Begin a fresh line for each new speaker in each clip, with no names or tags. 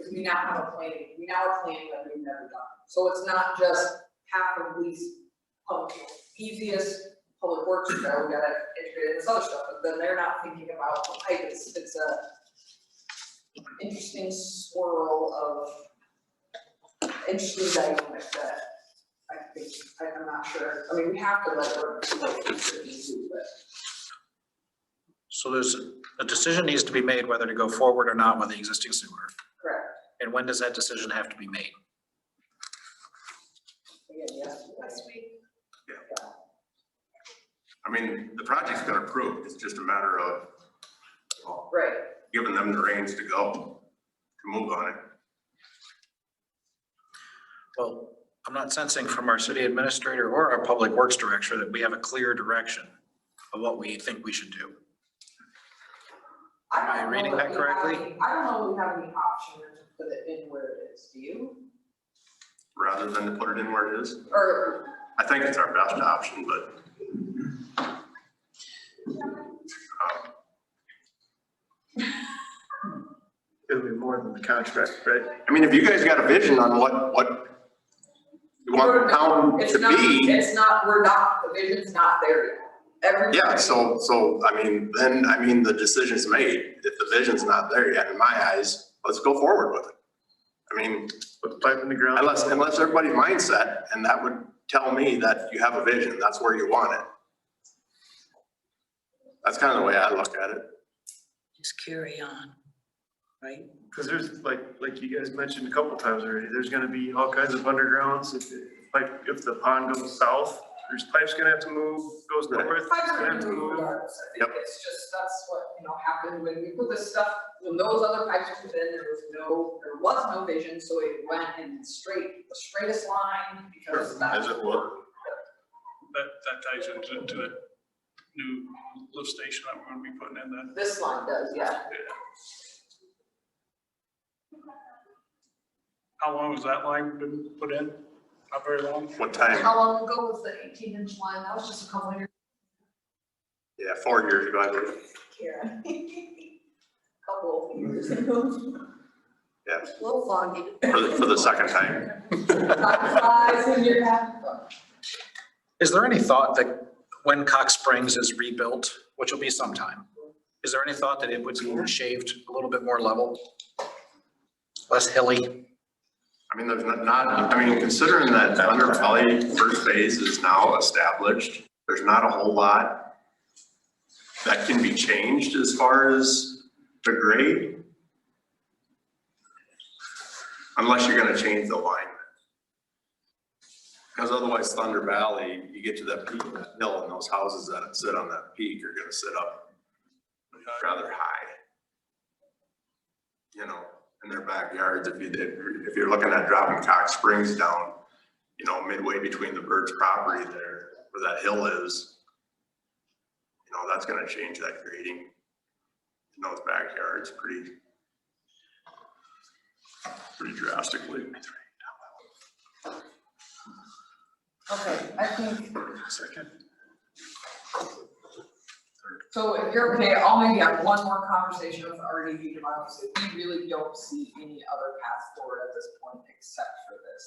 because we now have a plan, we now have a plan that we've never done. So it's not just half of these public, easiest public works, you know, we gotta integrate this other stuff, but then they're not thinking about the pipe, it's, it's a interesting swirl of interesting dynamic that I think, I- I'm not sure, I mean, we have to let work, like, do, but.
So there's, a- a decision needs to be made whether to go forward or not with the existing sewer.
Correct.
And when does that decision have to be made?
Again, yes.
Last week,
I mean, the project's been approved, it's just a matter of, well,
Right,
giving them the reins to go, to move on it.
Well, I'm not sensing from our city administrator or our public works director that we have a clear direction of what we think we should do.
I
Am I
don't
reading
know
that
that we have
correctly?
any- I don't know if we have any option to put it in where it is, do you?
rather than to put it in where it is.
Or,
I think it's our best option, but. um,
It'll be more than the contract, right?
I mean, if you guys got a vision on what, what you want the town
it's
to
not,
be,
it's not, we're not, the vision's not there yet. Every.
yeah, so, so, I mean, then, I mean, the decision's made. If the vision's not there yet, in my eyes, let's go forward with it. I mean,
Put the pipe in the ground.
unless, unless everybody's mindset, and that would tell me that you have a vision, that's where you want it. That's kind of the way I look at it.
just carry on, right?
Because there's, like, like you guys mentioned a couple times already, there's gonna be all kinds of undergrounds. If, like, if the pond goes south, there's pipes gonna have to move, goes
Right.
north,
Five
it's gonna have
hundred
to
moved
move.
yards, I think it's just, that's what, you know, happened when we put this stuff, when those other pipes were put in, there was no, there was no vision, so it went in straight, the straightest line, because that's.
were.
that, that ties into, to the new lift station that we're gonna be putting in that.
This line does, yeah,
How long has that line been put in? Not very long.
What time?
how long ago was the eighteen inch line? That was just a couple years.
Yeah, four years ago, I believe.
Karen. Couple of years ago.
Yes,
A little foggy.
for the, for the second time.
Five size in your half.
Is there any thought that when Cox Springs is rebuilt, which will be sometime, is there any thought that it would be shaved a little bit more level? Less hilly?
I mean, there's not, not- I mean, considering that Thunder Valley first phase is now established, there's not a whole lot that can be changed as far as the grade. Unless you're gonna change the alignment. Because otherwise Thunder Valley, you get to that peak of that hill and those houses that sit on that peak are gonna sit up rather high. You know? in their backyards, if you, if you're looking at dropping Cox Springs down, you know, midway between the bird's property there, where that hill is, you know, that's gonna change that grading in those backyards pretty, pretty drastically.
Okay, I think. Second. So if you're okay, I'll maybe have one more conversation with RDV tomorrow, because we really don't see any other path forward at this point except for this.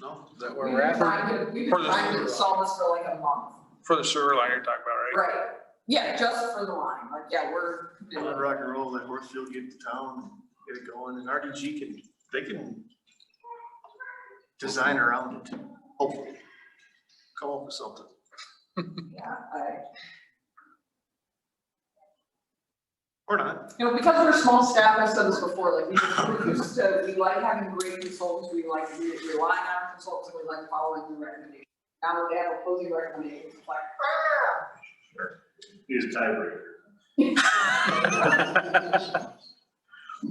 No, is that where
We've
we're
been
at?
trying to, we've
For
been
the-
trying to solve this for like a month,
For the sewer line you're talking about, right?
right? Yeah, just for the line, like, yeah, we're.
Let rock and roll, let Horsfield get to town, get it going, and RDG can, they can design around it, hopefully. Come up with something.
Yeah, I,
Or not.
you know, because we're small staff, I've said this before, like, we- we're used to, we like having great consultants, we like, we rely on consultants, and we like following the recommendations. Now that they have opposing recommendations, it's like, ah!
Use a tiebreaker.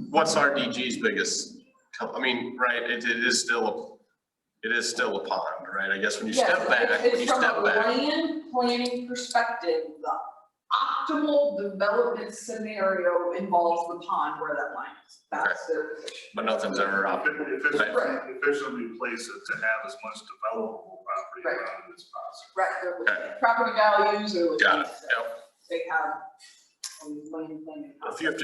What's RDG's biggest, I mean, right, it, it is still, it is still a pond, right? I guess when
Yes, it's- It's from a land planning perspective, the optimal development scenario involves the pond where that line is, that's their position.
but nothing's ever up.
Right.
Officially place it to have as much developable property
Right.
around it as possible.
Right, they're with
Okay.
property values or with.
Got it,
these, uh, They have, um, land planning.
If you have to